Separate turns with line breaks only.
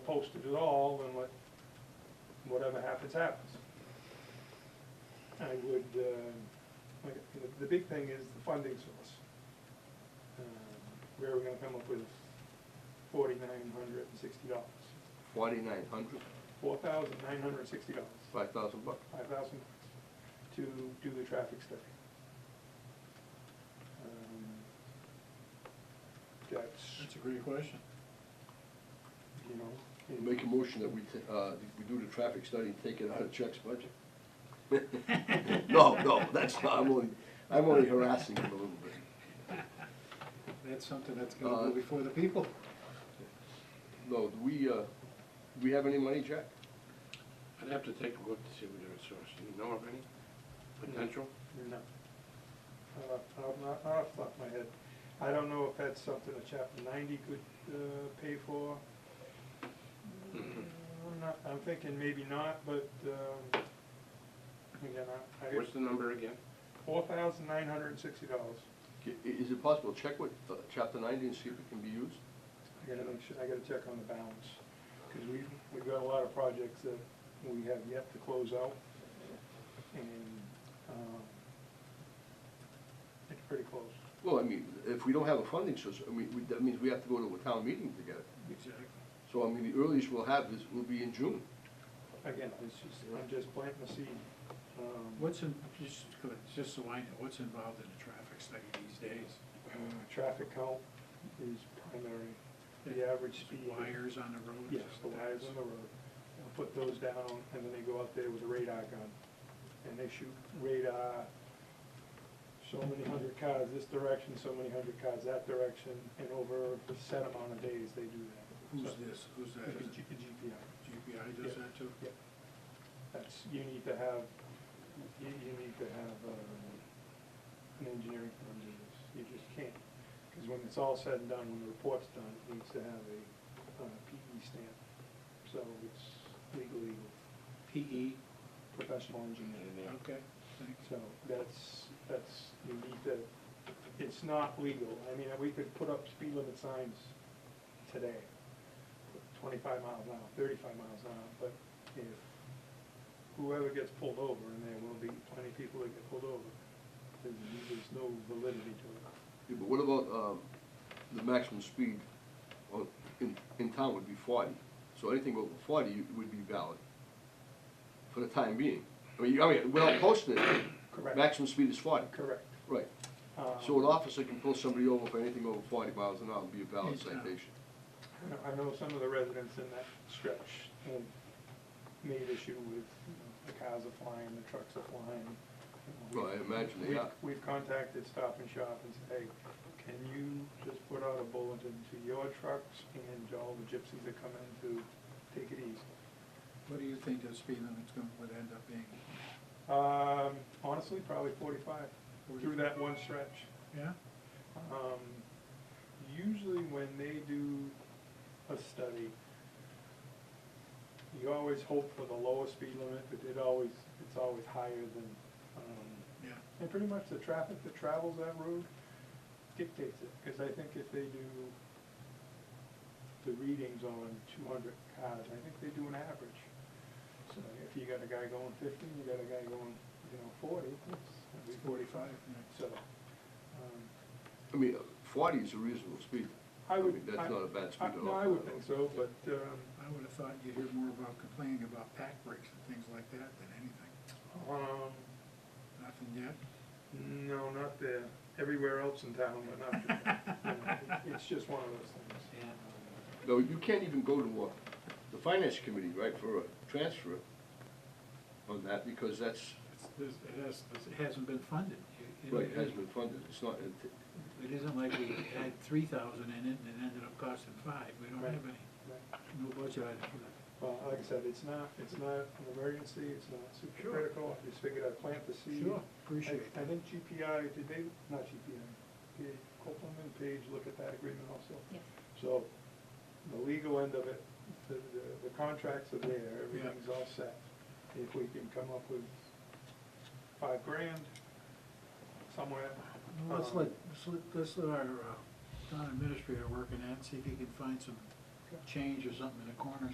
posted at all and let, whatever happens, happens. I would, uh, like, the- the big thing is the funding source. Um, Where are we gonna come up with forty-nine hundred and sixty dollars?
Forty-nine hundred,
Four thousand nine hundred and sixty dollars,
five thousand bucks.
five thousand to do the traffic study. Um, That's,
That's a great question.
you know. it-
Make a motion that we, ta- uh, we do the traffic study and take it out of Chuck's budget. No, no, that's not, I'm only, I'm only harassing him a little bit.
That's something that's gonna
Uh,
go before the people.
No, do we, uh, do we have any money, Jack?
I'd have to take a look to see what they're sourcing. You know of any potential?
No. Uh, I'll not, I'll flop my head. I don't know if that's something a chapter ninety could, uh, pay for.
Mhm.
I'm not, I'm thinking maybe not, but, um, again, I, I,
What's the number again?
four thousand nine hundred and sixty dollars.
I- Is it possible, check with uh, chapter ninety and see if it can be used?
I gotta make sure, I gotta check on the balance, cause we've, we've got a lot of projects that we have yet to close out. And, um, it's pretty close.
Well, I mean, if we don't have a funding source, I mean, we- that means we have to go to a town meeting to get it.
Exactly.
So, I mean, the earliest we'll have is, will be in June.
Again, it's just, I'm just planting the seed. Um,
What's in, just, just so I know, what's involved in a traffic study these days?
uh, Traffic count is primary, the average
Just
speed.
Wires on the road?
Yes, the wires on the road. They'll Put those down, and then they go out there with a radar gun, and they shoot radar, so many hundred cars this direction, so many hundred cars that direction, and over a set amount of days, they do that.
Who's
So,
this, who's that?
it'd be
Is
G-
it
GPI.
GPI does
Yeah.
that too?
Yeah. That's, you need to have, you, you need to have, um, an engineering firm do this, you just can't. Cause when it's all said and done, when the report's done, it needs to have a, uh, PE stamp, so it's legally
PE?
professional engineering.
Okay, thanks.
So that's, that's, you need to, it's not legal, I mean, we could put up speed limit signs today, twenty-five miles an hour, thirty-five miles an hour, but if whoever gets pulled over, and there will be plenty of people that get pulled over, then there's no validity to it.
Yeah, but what about, um, the maximum speed on, in, in town would be forty, so anything over forty you- would be valid for the time being. I mean, you- I mean, without posting it,
Correct.
maximum speed is forty.
Correct.
Right,
Um,
so an officer can pull somebody over for anything over forty miles an hour and be a valid
Yeah.
citation.
I know- I know some of the residents in that stretch have made issue with, you know, the cars are flying, the trucks are flying. you know,
Well, I imagine they
we've-
are.
We've contacted Stop and Shop and said, hey, can you just put out a bulletin to your trucks and all the gypsies that come in to take it easy?
What do you think the speed limit's gonna, would end up being?
Um, honestly, probably forty-five, through that one stretch.
Yeah?
Um, usually when they do a study, you always hope for the lower speed limit, but it always, it's always higher than, um,
Yeah.
and pretty much the traffic that travels that road dictates it, because I think if they do the readings on two hundred cars, I think they do an average. So if you got a guy going fifty, you got a guy going, you know, forty, it's gonna be
Forty-five,
forty-five. So,
yeah.
um,
I mean, forty is a reasonable speed.
I would.
mean, That's
I-
not a bad speed
I-
at all.
No, I would think so, but, um,
I would've thought you'd hear more about complaining about pack breaks and things like that than anything.
um,
Nothing yet?
no, not there, everywhere else in town, but not there. You know, It's just one of those things.
um,
No, you can't even go to, uh, the finance committee, right, for a transfer on that, because that's,
It's- there's- It has, it hasn't been funded. You- you know,
right, hasn't been funded, it's not,
It isn't like we had three thousand in it and it ended up costing five. We don't have any,
Right.
no budget item for that.
Well, uh, like I said, it's not, it's not an emergency, it's not super
Sure.
critical, I just figured I'd plant the seed.
Sure, appreciate
I I
it.
think GPI, did they, not GPI, did Copeland and Page look at that agreement also?
Yes.
So, the legal end of it, the, the- the contracts are there, everything's all set. If we can come up with five grand somewhere.
Well, Let's
um,
let, let's let, let's let our uh, town administrator work on that, and see if he can find some
Okay.
change or something in the corner